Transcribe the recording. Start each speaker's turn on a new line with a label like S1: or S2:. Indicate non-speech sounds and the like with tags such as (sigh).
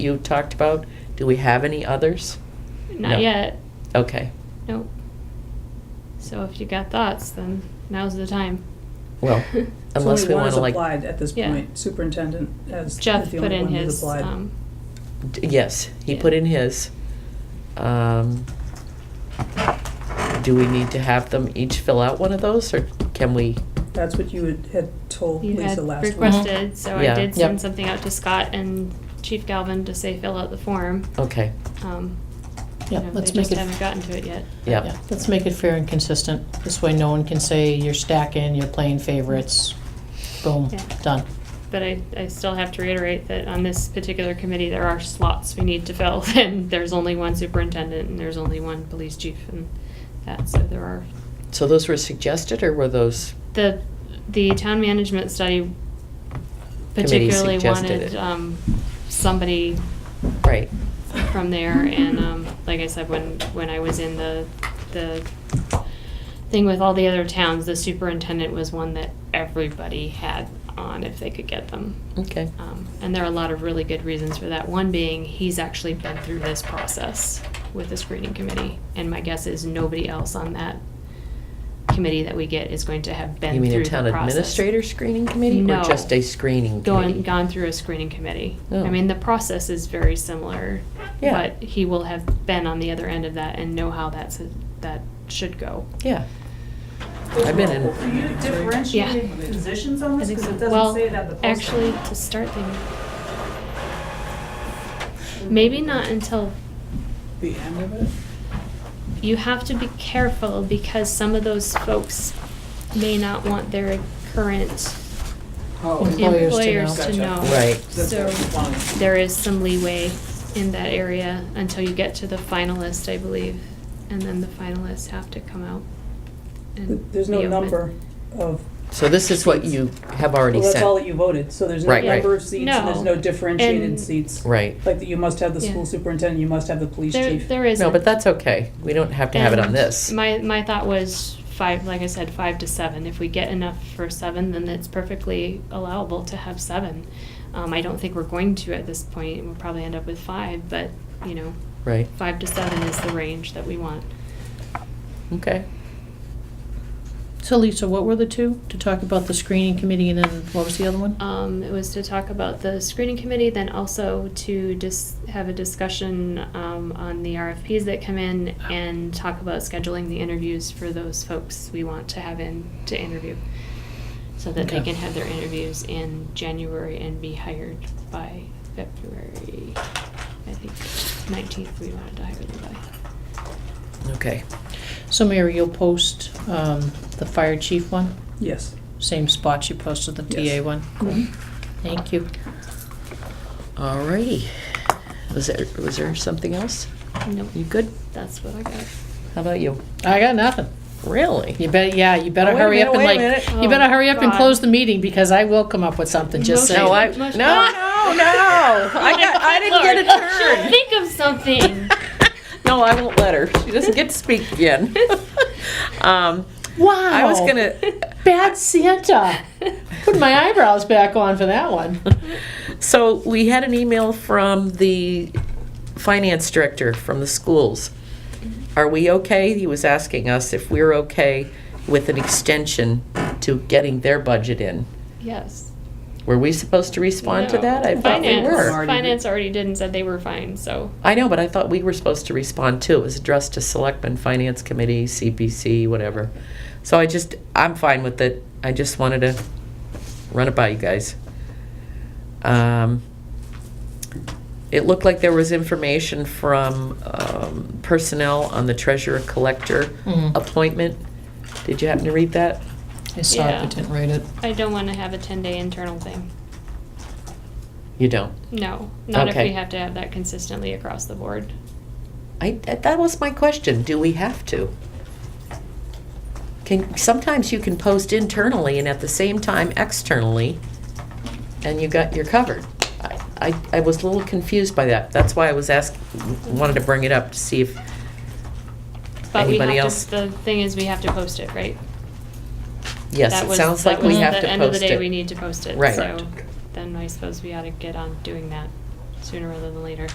S1: you talked about? Do we have any others? No.
S2: Not yet.
S1: Okay,
S2: Nope. So if you got thoughts, then now's the time.
S1: well, unless we want to like.
S3: So only one has applied at this
S2: Yeah.
S3: point, superintendent has,
S2: (laughs)
S3: is
S2: Jeff
S3: the
S2: put
S3: only
S2: in
S3: one who's
S2: his,
S3: applied.
S2: um,
S1: D- Yes, he
S2: Yeah.
S1: put in his. Um, Do we need to have them each fill out one of those, or can we?
S3: That's what you had- had told
S2: you had
S3: Lisa last week.
S2: requested, so I
S1: Yeah.
S2: did
S1: Yep.
S2: send something out to Scott and Chief Galvin to say fill out the form.
S1: Okay,
S2: Um, you
S4: Yeah,
S2: know,
S4: let's
S2: they
S4: make
S2: just
S4: it-
S2: haven't gotten to it yet.
S1: yeah,
S4: Let's make it fair and consistent. This way no one can say you're stacking, you're playing favorites. Boom,
S2: Yeah.
S4: done.
S2: But I, I still have to reiterate that on this particular committee, there are slots we need to fill, (laughs) and there's only one superintendent, and there's only one police chief, and that, so there are.
S1: so those were suggested, or were those,
S2: The, the town management study particularly
S1: suggested
S2: wanted,
S1: it.
S2: um, somebody
S1: right,
S2: from there, and, um, like I said, when, when I was in the, the thing with all the other towns, the superintendent was one that everybody had on if they could get them.
S1: okay,
S2: Um, and there are a lot of really good reasons for that. One being he's actually been through this process with the screening committee, and my guess is nobody else on that committee that we get is going to have been
S1: You mean
S2: through
S1: a town
S2: the process.
S1: administrator screening committee, or
S2: No.
S1: just a screening
S2: Gone,
S1: committee?
S2: gone through a screening committee.
S1: Oh.
S2: I mean, the process is very similar,
S1: Yeah.
S2: but he will have been on the other end of that and know how that's that should go.
S1: Yeah. I've been in-
S5: Are you differentiating positions on this? Because it
S2: well,
S5: doesn't say that the post.
S2: actually, to start the maybe not until
S3: The end of it?
S2: you have to be careful because some of those folks may not want their current
S3: Oh,
S4: Employers to
S2: employers
S4: know.
S2: to know.
S3: Gotcha.
S1: Right.
S3: that's
S2: So
S3: fine.
S2: there is some leeway in that area until you get to the finalist, I believe. And then the finalists have to come out
S3: Th-
S2: and
S3: There's no
S2: be open.
S3: number of,
S1: So this is what you have already
S3: well, that's all
S1: sent,
S3: that you voted, so there's no
S1: Right, right.
S3: number of seats and there's
S2: No.
S3: no differentiated
S2: And-
S3: seats.
S1: right?
S3: Like that you must have the
S2: Yeah.
S3: school superintendent, you must have the police
S2: There,
S3: chief.
S2: there is.
S1: No, but that's okay, we don't have to have it on this.
S2: My, my thought was five, like I said, five to seven. If we get enough for seven, then it's perfectly allowable to have seven. Um, I don't think we're going to at this point. We'll probably end up with five, but, you know,
S1: Right,
S2: five to seven is the range that we want.
S1: okay.
S4: So Lisa, what were the two? To talk about the screening committee and then what was the other one?
S2: Um, it was to talk about the screening committee, then also to just have a discussion, um, on the RFPs that come in and talk about scheduling the interviews for those folks we want to have in to interview. So that they
S4: Okay.
S2: can have their interviews in January and be hired by February, I think, nineteenth, we wanted to hire them by.
S1: Okay,
S4: So Mary, you'll post um, the fire chief one,
S3: Yes.
S4: same spot you posted the TA
S3: Yes.
S4: one?
S1: Mm-hmm.
S4: Thank you.
S1: all righty. Was there, was there something else?
S2: Nope,
S1: You good?
S2: that's what I got.
S1: How about you?
S4: I got nothing.
S1: Really? (laughs)
S4: You better, yeah, you better
S1: Oh, wait a
S4: hurry up
S1: minute,
S4: and
S1: wait
S4: like,
S1: a
S2: minute.
S4: you better
S2: Oh,
S4: hurry up and
S2: God.
S4: close the meeting because I will come up with something, just
S2: Motion.
S4: saying.
S1: No, I, no,
S2: Mush-
S1: no,
S2: mush-
S1: no, I got, I didn't get a turn.
S2: (laughs) Think of something.
S1: No, I won't let her. She doesn't get to speak again. (laughs) Um,
S4: Wow.
S1: I was gonna,
S4: Bad Santa. Put my eyebrows back on for that one.
S1: so we had an email from the finance director from the schools. Are we okay? He was asking us if we're okay with an extension to getting their budget in.
S2: Yes.
S1: Were we supposed to respond to
S2: No.
S1: that? I thought we
S2: Finance-
S1: were.
S2: Finance already did and said they were fine, so.
S1: I know, but I thought we were supposed to respond too. It was addressed to Selectmen, Finance Committee, CPC, whatever. So I just, I'm fine with it. I just wanted to run it by you guys. Um, It looked like there was information from um, personnel on the treasurer-collector
S4: Mhm.
S1: appointment. Did you happen to read that?
S4: I saw it,
S2: Yeah.
S4: but didn't read it.
S2: I don't want to have a 10-day internal thing.
S1: You don't?
S2: No, not if
S1: Okay.
S2: we have to have that consistently across the board.
S1: I, that that was my question, do we have to? Can, sometimes you can post internally and at the same time externally, and you got, you're covered. I, I- I was a little confused by that, that's why I was ask, wanted to bring it up to see if,
S2: But we
S1: Anybody
S2: have
S1: else?
S2: to, the thing is, we have to post it, right?
S1: yes,
S2: That
S1: it
S2: was-
S1: sounds like
S2: that
S1: we
S2: was
S1: have
S2: the
S1: to
S2: End of the
S1: post
S2: day, we
S1: it.
S2: need to post it.
S1: Right.
S2: So then I suppose we ought to get on doing that. sooner rather than later.